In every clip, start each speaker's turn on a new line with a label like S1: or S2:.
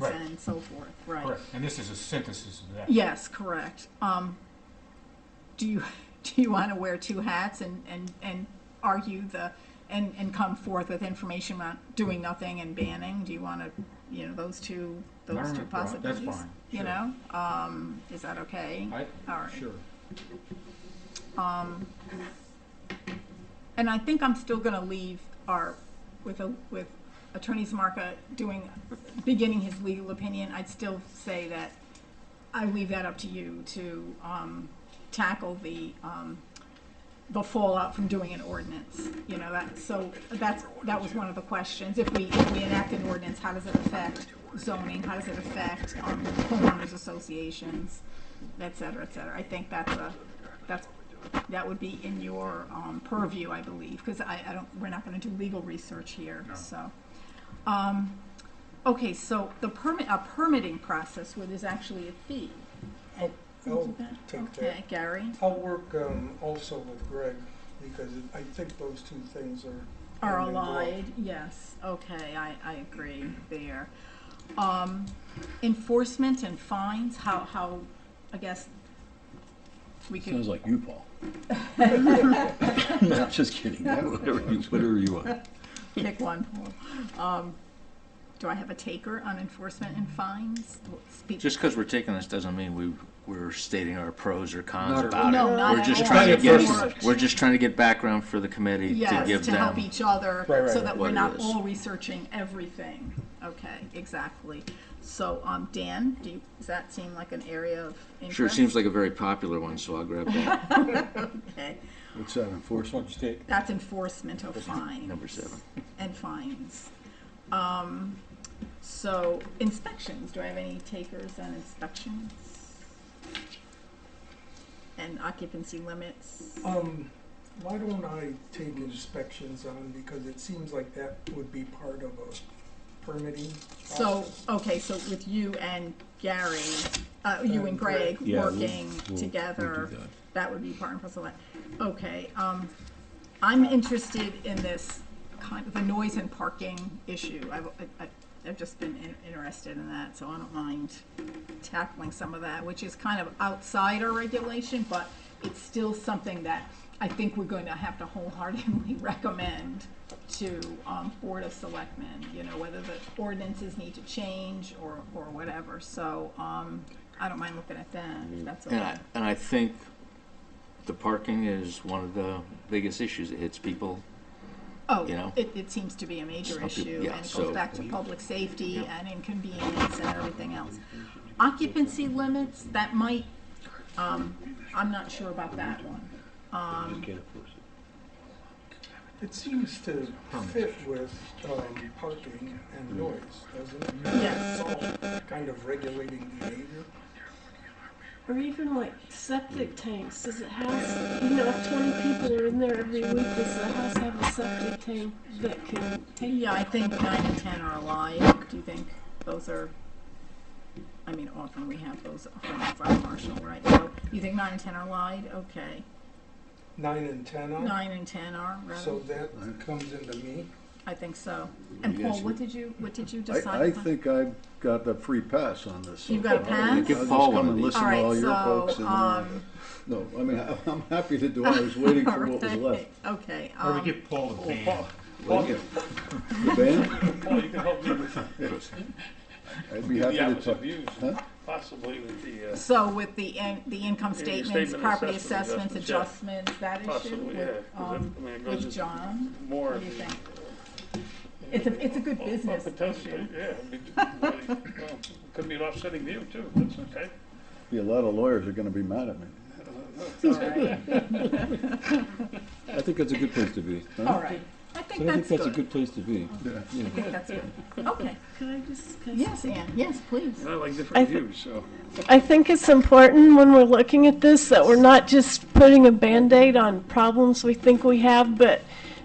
S1: ordinance
S2: Right.
S1: and so forth, right?
S2: Correct, and this is a synthesis of that.
S1: Yes, correct. Um, do you, do you want to wear two hats and, and, and argue the, and, and come forth with information about doing nothing and banning? Do you want to, you know, those two,
S2: No, no,
S1: those
S2: no,
S1: two
S2: well, that's
S1: possibilities?
S2: fine,
S1: You
S2: sure.
S1: know, um, is that okay?
S2: I,
S1: All right.
S2: sure.
S1: Um, and I think I'm still gonna leave our, with a, with Attorney Samarka doing, beginning his legal opinion, I'd still say that I leave that up to you to, um, tackle the, um, the fallout from doing an ordinance, you know, that, so, that's, that was one of the questions. If we, if we enact an ordinance, how does it affect zoning, how does it affect, um, homeowners associations, et cetera, et cetera? I think that's a, that's, that would be in your, um, purview, I believe, because I, I don't, we're not gonna do legal research here,
S2: No.
S1: so. Um, okay, so the permit, a permitting process where there's actually a fee.
S3: I'll, I'll
S1: Isn't that-
S3: Oh, take
S1: Okay,
S3: that.
S1: Gary,
S3: I'll work um, also with Greg, because I think those two things are.
S1: are
S3: interlinked.
S1: allied, yes, okay, I, I agree there. Um, enforcement and fines, how, how, I guess, we
S4: Sounds
S1: could,
S4: like you, Paul. No, I'm just kidding. Whatever you, whatever you want.
S1: pick one, Paul. Um, do I have a taker on enforcement and fines? Speak-
S5: Just because we're taking this doesn't mean we, we're stating our pros or cons
S2: Not at all.
S5: about it.
S1: No, not
S5: We're
S1: at
S5: just
S1: all.
S5: trying to
S2: It's not
S1: a
S5: get, we're just trying to get background for the committee to give
S1: Yes, to help
S5: them.
S1: each other,
S2: Right, right,
S1: so
S2: right.
S1: that
S5: What
S1: we're
S5: it
S1: not
S5: is.
S1: all researching everything. Okay, exactly. So, um, Dan, do you, does that seem like an area of interest?
S5: Sure, it seems like a very popular one, so I'll grab that,
S1: Okay,
S4: What's that
S2: Which one
S4: enforcement?
S2: you take?
S1: that's enforcement of fines.
S5: number seven.
S1: And fines. Um, so inspections, do I have any takers on inspections? And occupancy limits?
S3: Um, why don't I take inspections on, because it seems like that would be part of a permitting
S1: So,
S3: process.
S1: okay, so with you and Gary, uh, you and
S3: And
S1: Greg
S3: Greg.
S4: Yeah, we'll-
S1: working
S4: we'll- we'll
S1: together,
S4: do that.
S1: that would be part and parcel of that. Okay, um, I'm interested in this kind of the noise and parking issue. I've, I- I- I've just been in- interested in that, so I don't mind tackling some of that, which is kind of outside our regulation, but it's still something that I think we're going to have to wholeheartedly recommend to, um, Board of Selectmen, you know, whether the ordinances need to change or, or whatever. So, um, I don't mind looking at that, if that's okay.
S5: And I, and I think the parking is one of the biggest issues. It hits people. you
S1: Oh,
S5: know?
S1: it, it seems to be a major
S5: Some people-
S1: issue,
S5: yeah,
S1: and it goes
S5: so-
S1: back to public safety
S5: Yeah.
S1: and inconvenience and everything else. Occupancy limits, that might, um, I'm not sure about that one. Um,
S3: It seems to fit with, um, parking and noise, doesn't it?
S1: Yes.
S3: It's all kind of regulating behavior.
S6: Or even like septic tanks, does it have, you know, if twenty people are in there every week, does the house have a septic tank that can take?
S1: yeah, I think nine and ten are alive, do you think those are, I mean, often we have those from the fire marshal, right? So, you think nine and ten are alive, okay,
S3: Nine and ten on,
S1: nine and ten are,
S3: so
S1: rather,
S3: that comes into me.
S1: I think so. And
S5: You guys-
S1: Paul, what did you, what did you decide?
S4: I, I
S1: upon?
S4: think I've got the free pass on this. so
S1: You've got a
S4: far.
S1: pass?
S4: I'll
S5: Give
S4: just
S5: Paul one
S4: come
S5: of
S4: and
S5: these.
S4: listen
S1: All
S4: to all
S1: right,
S4: your folks.
S1: so,
S4: and, uh,
S1: um,
S4: No, I mean, I- I'm happy to do, it. I was waiting for what was
S1: Alright,
S4: left.
S1: Okay,
S2: Or we
S1: um,
S2: give Paul the
S4: Well,
S2: van.
S4: Well, yeah. The band?
S7: Well, you can help me with
S4: I'd be happy
S7: the
S4: to
S7: opposite
S4: talk.
S7: views,
S4: Huh?
S7: possibly with the, uh,
S1: so with the, in- the income
S7: Yeah, your
S1: statements,
S7: statement
S1: property assessments,
S7: assessment adjustments,
S1: adjustments, that issue
S7: possibly, yeah.
S1: with,
S7: 'cause
S1: um,
S7: if- I mean, it goes
S1: with
S7: into
S1: John?
S7: More.
S1: What do you think? It's a, it's a good
S7: Well,
S1: business
S7: Potentially,
S1: issue.
S7: yeah. I mean, well, it Could be an offsetting view too, that's okay.
S4: Be a lot of lawyers are gonna be mad at me.
S1: Alright,
S8: I think that's a good place to be. huh?
S1: alright, I
S8: So I
S1: think
S8: think
S1: that's
S8: that's a
S1: good,
S8: good place to be.
S4: Yeah.
S1: I think that's good, okay,
S6: Can I just? can I
S1: yes,
S6: just-
S1: Ann, yes, please,
S7: And I like
S6: I
S7: different
S6: th-
S7: views, so.
S6: I think it's important when we're looking at this that we're not just putting a Band-Aid on problems we think we have, but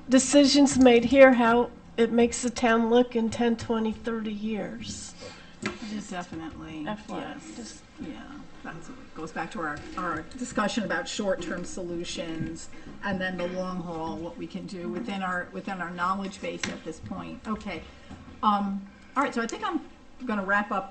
S6: decisions made here, how it makes the town look in 10, 20, 30 years.
S1: definitely,
S6: FYI,
S1: yes.
S6: just
S1: Yeah, that's, it goes back to our, our discussion about short-term solutions and then the long haul, what we can do within our, within our knowledge base at this point. Okay. Um, all right, so I think I'm gonna wrap up